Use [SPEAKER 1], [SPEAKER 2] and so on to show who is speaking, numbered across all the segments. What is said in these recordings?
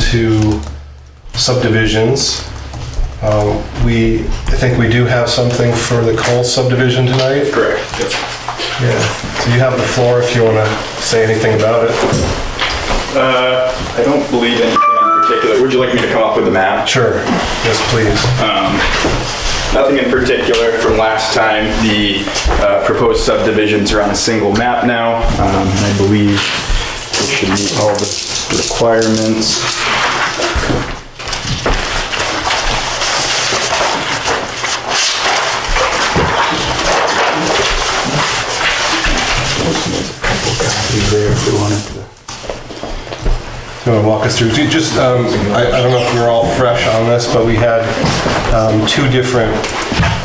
[SPEAKER 1] into subdivisions. Um, We, I think we do have something for the Cole subdivision tonight.
[SPEAKER 2] Correct.
[SPEAKER 1] Yeah. So you have the floor if you want to say anything about it.
[SPEAKER 2] Uh, I don't believe anything in particular. Would you like me to come up with a map?
[SPEAKER 1] Sure. Yes, please.
[SPEAKER 2] Nothing in particular from last time. The uh, proposed subdivisions are on a single map now. Um, I believe it should meet all the requirements. Copies there if we wanted to.
[SPEAKER 1] You want to walk us through? Do you Just, um, I I don't know if we're all fresh on this, but we had um, two different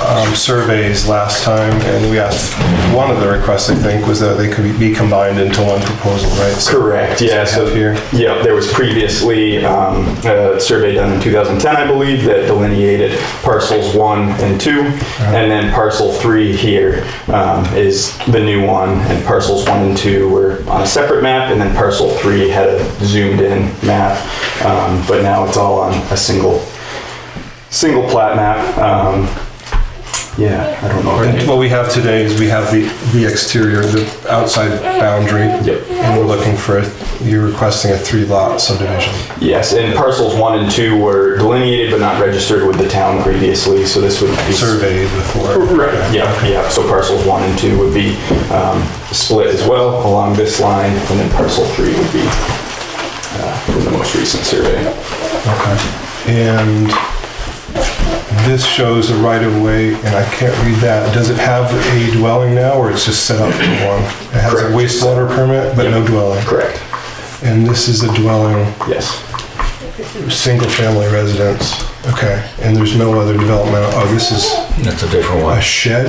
[SPEAKER 1] um, surveys last time, and we asked, one of the requests, I think, was that they could be combined into one proposal, right? So-
[SPEAKER 2] Correct, yeah, so,
[SPEAKER 1] Up here.
[SPEAKER 2] yeah, there was previously um, a survey done in 2010, I believe, that delineated parcels one and two, and then parcel three here um, is the new one, and parcels one and two were on a separate map, and then parcel three had a zoomed-in map, um, but now it's all on a single, single plat map. Um, Yeah, I don't know.
[SPEAKER 1] And
[SPEAKER 2] if any-
[SPEAKER 1] what we have today is we have the, the exterior, the outside boundary.
[SPEAKER 2] Yep.
[SPEAKER 1] And we're looking for, a- you're requesting a three lot subdivision.
[SPEAKER 2] Yes, and parcels one and two were delineated but not registered with the town previously, so this would be.
[SPEAKER 1] Surveyed before.
[SPEAKER 2] Right, yeah, yeah, so parcels one and two would be um, split as well along this line, and then parcel three would be uh, in the most recent survey.
[SPEAKER 1] Okay. And this shows a right of way, and I can't read that. Does it have a dwelling now, or it's just set up for one? It has a
[SPEAKER 2] Correct.
[SPEAKER 1] wastewater permit, but no dwelling.
[SPEAKER 2] Correct,
[SPEAKER 1] And this is a dwelling,
[SPEAKER 2] yes.
[SPEAKER 1] single family residence. Okay. And there's no other development. Oh, this is
[SPEAKER 3] That's a different
[SPEAKER 1] a
[SPEAKER 3] one.
[SPEAKER 1] shed?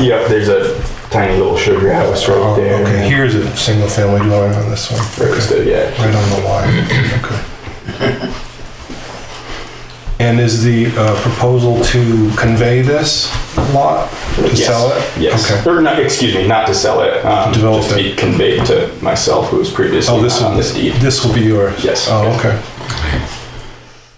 [SPEAKER 2] Yep, there's a tiny little sugar house right
[SPEAKER 1] Oh,
[SPEAKER 2] there.
[SPEAKER 1] okay, here's a single family dwelling on this one.
[SPEAKER 2] Right there, yeah.
[SPEAKER 1] Right on the line, okay. And is the uh, proposal to convey this lot, to
[SPEAKER 2] Yes,
[SPEAKER 1] sell it?
[SPEAKER 2] Yes,
[SPEAKER 1] Okay.
[SPEAKER 2] or not, excuse me, not to sell it. um,
[SPEAKER 1] Develop
[SPEAKER 2] Just be
[SPEAKER 1] it.
[SPEAKER 2] conveyed to myself, who was previously
[SPEAKER 1] Oh, this
[SPEAKER 2] not on
[SPEAKER 1] will,
[SPEAKER 2] this deed.
[SPEAKER 1] this will be yours?
[SPEAKER 2] Yes.
[SPEAKER 1] Oh, okay.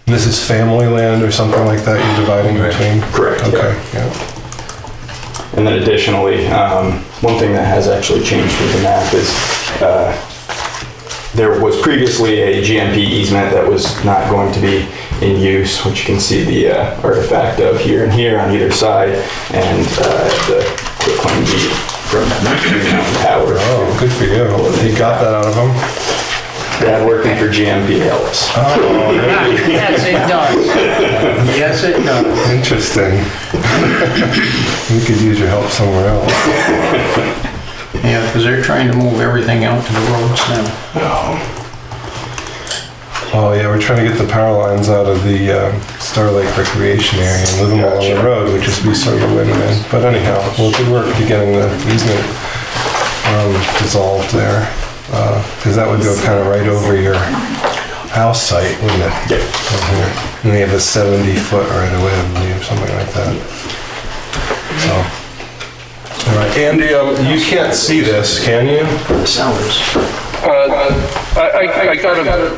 [SPEAKER 1] And This is family land or something like that you're dividing
[SPEAKER 3] Right.
[SPEAKER 1] between?
[SPEAKER 2] Correct, yeah.
[SPEAKER 1] Okay, yeah.
[SPEAKER 2] And then additionally, um, one thing that has actually changed with the map is uh, there was previously a GMP easement that was not going to be in use, which you can see the uh, artifact of here and here on either side, and uh, the quitclaim deed from Howard.
[SPEAKER 1] Oh, good for you. You got that out of him?
[SPEAKER 2] That working for GMP helps.
[SPEAKER 1] Oh,
[SPEAKER 4] Yes, it does. Yes, it does.
[SPEAKER 1] Interesting. We could use your help somewhere else.
[SPEAKER 4] Yeah, because they're trying to move everything out to the roads now.
[SPEAKER 1] Oh yeah, we're trying to get the power lines out of the um, Star Lake Recreation area and move them along the road, which would be sort of a win-win. But anyhow, well, good work to getting the easement um, dissolved there, because that would go kind of right over your house site, wouldn't it?
[SPEAKER 2] Yep.
[SPEAKER 1] From here. And they have a 70-foot right away, I believe, something like that. So, all right, Andy, um, you can't see this, can you?
[SPEAKER 5] Uh, I, I, I got a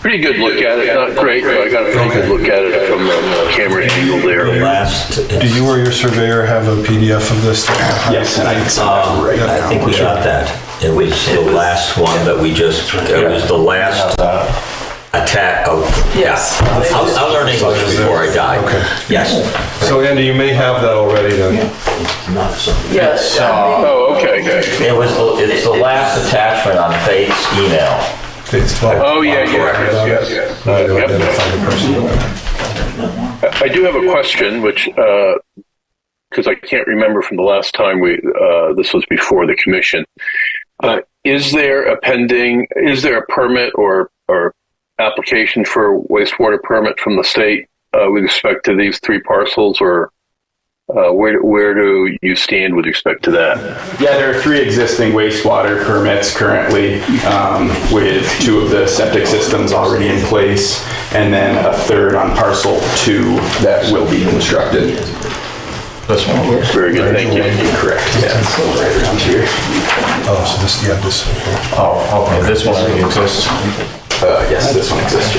[SPEAKER 5] pretty good look at it, not great, but I got a pretty good look at it from the camera angle
[SPEAKER 3] The
[SPEAKER 5] there.
[SPEAKER 3] last,
[SPEAKER 1] Do you or your surveyor have a PDF of this? Um,
[SPEAKER 2] Yes, and I can send that right
[SPEAKER 3] uh, I think we got that. It was the last one that we just, it was the last attack of, yeah. I'll, I'll learn English before I die.
[SPEAKER 1] Okay.
[SPEAKER 3] Yes.
[SPEAKER 1] So Andy, you may have that already then.
[SPEAKER 3] Not something.
[SPEAKER 4] Yes.
[SPEAKER 5] Oh, okay.
[SPEAKER 3] It was, the- it's the last attachment on Faith's email.
[SPEAKER 1] It's fine.
[SPEAKER 5] Oh, yeah, yeah, yes, yes,
[SPEAKER 1] I had to
[SPEAKER 5] yes.
[SPEAKER 1] identify the person.
[SPEAKER 5] Yep. I do have a question, which, uh, because I can't remember from the last time we, uh, this was before the commission. Uh, is there a pending, is there a permit or, or application for wastewater permit from the state, uh, with respect to these three parcels or, uh, where, where do you stand with respect to that?
[SPEAKER 2] Yeah, there are three existing wastewater permits currently, um, with two of the septic systems already in place, and then a third on parcel two that will be constructed.
[SPEAKER 5] Very good, thank you.
[SPEAKER 2] Correct, yeah, so right around here.
[SPEAKER 1] Oh, so this, yeah, this.
[SPEAKER 6] Oh, okay, this one already exists.
[SPEAKER 2] Uh, yes, this one exists.